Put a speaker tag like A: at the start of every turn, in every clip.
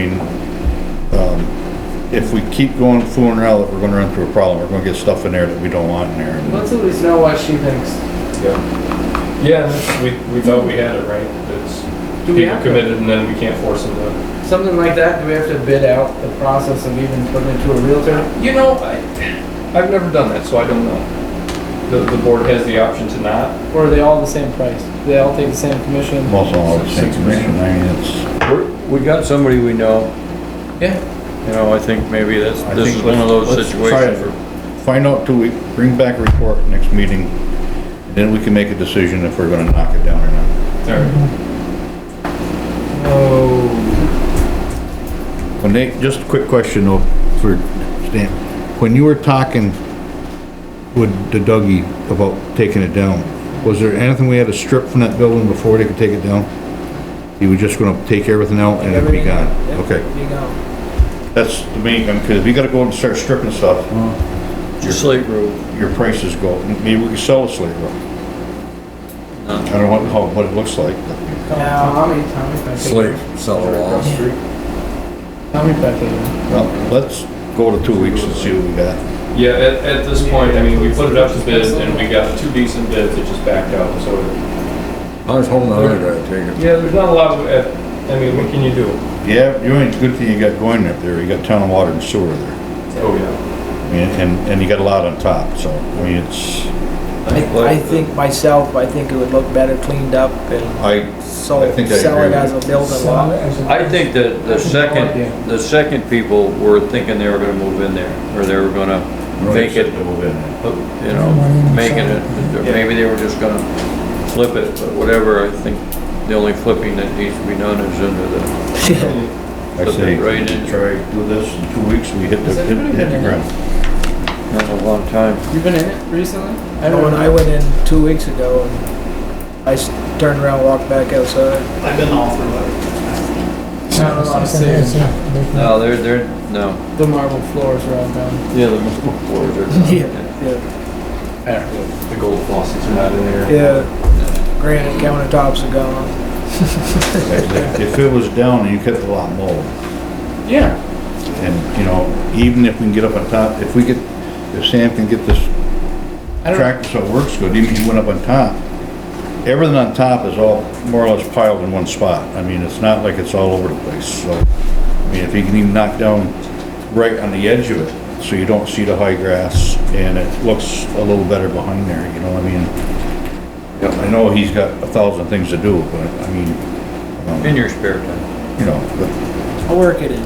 A: um, if we keep going fooling around, we're gonna run into a problem. We're gonna get stuff in there that we don't want in there.
B: Let's at least know what she thinks.
C: Yeah, yeah. we, we thought we had it right, It's
B: Do we have
C: people
B: to-
C: committed and then we can't force them to.
B: Something like that, do we have to bid out the process of even putting it to a realtor?
C: You know, I, I've never done that, so I don't know. The, the board has the option to not.
B: Or are they all the same price? They all take the same commission?
A: Most all the same
C: Six percent.
A: commission, I mean, it's,
D: We're- We got somebody we know,
B: Yeah,
D: you know, I think maybe that's,
A: I
D: this
A: think
D: is one of those
A: let's- let's try
D: situations
A: it.
D: where
A: find out till we bring back a report next meeting. and Then we can make a decision if we're gonna knock it down or not.
B: oh,
A: When they, just a quick question though, for Stan, when you were talking with the Dougie about taking it down, was there anything we had to strip from that building before they could take it down? You were just gonna take everything out and it'd be gone?
B: Everything out, yeah.
A: Okay.
B: you go.
A: That's the main, because if you gotta go and start stripping stuff,
D: your slate roof,
A: your prices go, up. maybe we can sell a slate roof. I don't know how, what it looks like. but-
B: Now, how many times have I taken?
E: slate, cellar walls.
B: How many have I taken?
A: Well, let's go to two weeks and see what we got.
C: Yeah, at, at this point, I mean, we put it up to bid and we got two decent bids, it just backed out, so.
E: I was hoping another guy would take it.
C: Yeah, there's not a lot of, uh, I mean, what can you do?
A: Yeah, you ain't, good thing you got going up there, you got town water and sewer there.
C: Oh, yeah.
A: I mean, And, and you got a lot on top, so, I mean, it's,
F: I, I think myself, I think it would look better cleaned up and
A: I,
F: so
A: I think I
F: sell it
A: agree.
F: as a building lot.
D: I think that the second, the second people were thinking they were gonna move in there, or they were gonna make it, you know, making it, or maybe they were just gonna flip it, but whatever, I think the only flipping that needs to be done is under the,
A: I say,
D: Right in.
A: try, do this in two weeks, we hit the,
B: Has
A: hit
B: anybody
A: hit the
B: been in
A: ground.
D: not a long time.
B: You been in it recently?
F: I know when I went in two weeks ago, and I s- turned around, walked back outside.
G: I've been all through it.
B: Not a lot of sales.
D: No, they're, they're, no,
B: The marble floors are all done.
D: yeah, the marble floors are.
F: Yeah,
C: The gold faucets are not in there.
F: yeah. Granite countertops are gone.
A: If it was down, you kept a lot more.
B: Yeah.
A: And, you know, even if we can get up on top, if we get, if Sam can get this
B: I don't-
A: tractor so it works good, even if he went up on top, everything on top is all more or less piled in one spot. I mean, it's not like it's all over the place, so, I mean, if he can even knock down right on the edge of it, so you don't see the high grass, and it looks a little better behind there, you know, I mean, I know he's got a thousand things to do, but, I mean,
D: In
A: um,
D: your spare time.
A: you know, but
F: I'll work it in.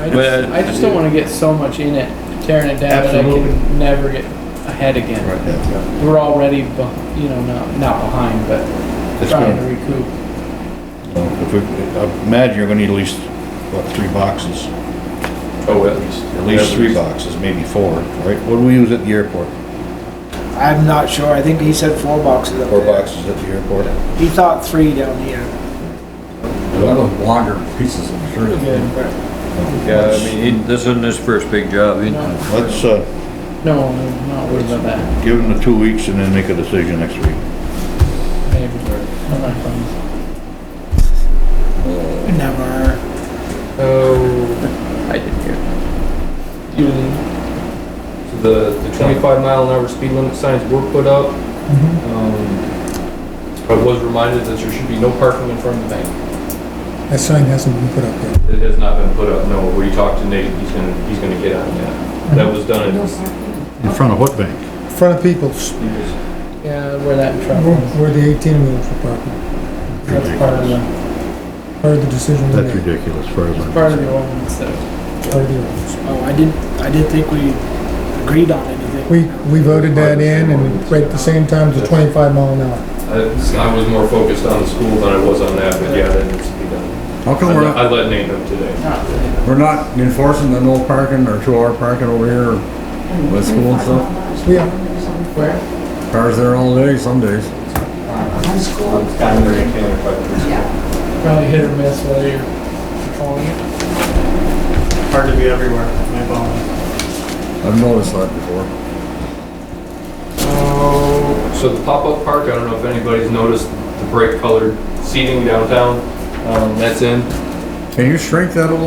B: I just, I just don't wanna get so much in it, tearing it down, that I
A: Absolutely.
B: can never get ahead again.
A: Right, yeah.
B: We're already, beh- you know, not, not behind, but
A: It's
B: trying to
A: gonna-
B: recoup.
A: So if we- I Imagine you're gonna need at least, what, three boxes?
C: Oh, at least.
A: At least three boxes, maybe four, right? What do we use at the airport?
F: I'm not sure. I think he said four boxes up
A: Four
F: there.
A: boxes at the airport?
F: He thought three down here.
E: A lot of longer pieces of material.
D: Yeah, I mean, he- this isn't his first big job. He-
B: No,
A: Let's, uh,
B: no, I'm not worried about that.
A: give them the two weeks and then make a decision next week.
B: Maybe. I'm not funny.
F: Never.
C: Oh,
D: I didn't hear.
B: You didn't-
C: the, the twenty-five mile an hour speed limit signs were put up.
H: Mm-hmm.
C: Um, I was reminded that there should be no parking in front of the bank.
H: That sign hasn't been put up yet.
C: It has not been put up, no, we talked to Nate, he's gonna, he's gonna get on that.
H: Mm-hmm.
C: That was done in,
A: In front of what bank?
H: In front of people's,
B: Yeah, where that truck
H: where
B: was.
H: where the eighteen wheels were parked,
B: That's part of the,
H: part of the decision we made,
A: ridiculous, far as
B: part of the ordinance that
H: part of the ordinance.
F: Oh, I didn't, I didn't think we agreed on anything.
H: We, we voted that in and right at the same time, the twenty-five mile an hour.
C: I, I was more focused on the school than I was on that, but yeah, that needs to be done.
E: How come
C: I
E: we're
C: let-
E: not,
C: I let Nate know today.
B: not really.
E: we're not enforcing the no parking or two-hour parking over here?
I: With school and stuff?
H: Yeah.
I: Where?
E: Cars there all day some days.
I: On school. Yeah.
B: Probably hit or miss whether you're controlling it.
G: Hard to be everywhere with my phone.
E: I've noticed that before.
C: So the pop-up park, I don't know if anybody's noticed the bright colored seating downtown, um, that's in.
E: Can you shrink that a little?